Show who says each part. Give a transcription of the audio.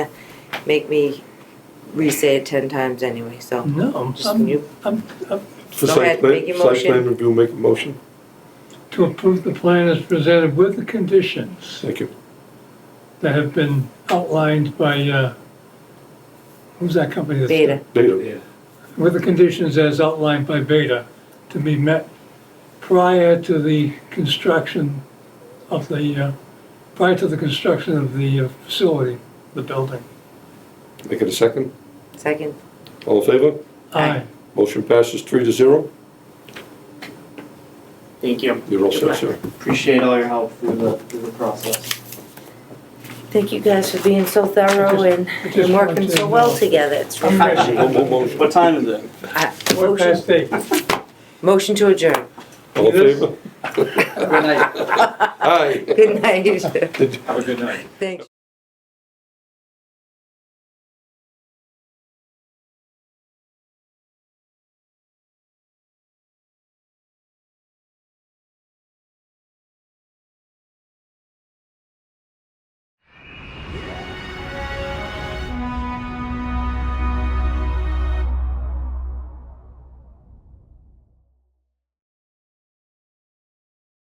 Speaker 1: make me re-say it ten times anyway, so.
Speaker 2: No, I'm-
Speaker 1: Just
Speaker 2: I'm,
Speaker 1: you-
Speaker 2: I'm, I'm
Speaker 3: For
Speaker 1: Go
Speaker 3: site
Speaker 1: ahead,
Speaker 3: plan,
Speaker 1: make your
Speaker 3: site plan
Speaker 1: motion.
Speaker 3: review, make a motion.
Speaker 2: to approve the plan as presented with the conditions
Speaker 3: Thank you.
Speaker 2: that have been outlined by, uh, who's that company? that's-
Speaker 1: Beta,
Speaker 3: Data.
Speaker 2: With the conditions as outlined by Beta to be met prior to the construction of the, uh, prior to the construction of the uh, facility, the building.
Speaker 3: Make it a second.
Speaker 1: second.
Speaker 3: All in favor?
Speaker 1: Aye.
Speaker 3: Motion passes three to zero.
Speaker 4: Thank you.
Speaker 3: You're all set, sir.
Speaker 4: Appreciate all your help through the, through the process.
Speaker 1: Thank you guys for being so thorough and
Speaker 2: I just
Speaker 1: and working
Speaker 2: want to
Speaker 1: so well
Speaker 2: know-
Speaker 1: together, it's refreshing.
Speaker 3: One more motion.
Speaker 4: What time is it?
Speaker 1: I-
Speaker 2: What
Speaker 1: Motion
Speaker 2: past date?
Speaker 1: motion to adjourn.
Speaker 3: All in favor?
Speaker 4: Good night.
Speaker 3: Aye.
Speaker 1: Good night.
Speaker 3: Did-
Speaker 4: Have a good night.
Speaker 1: Thanks.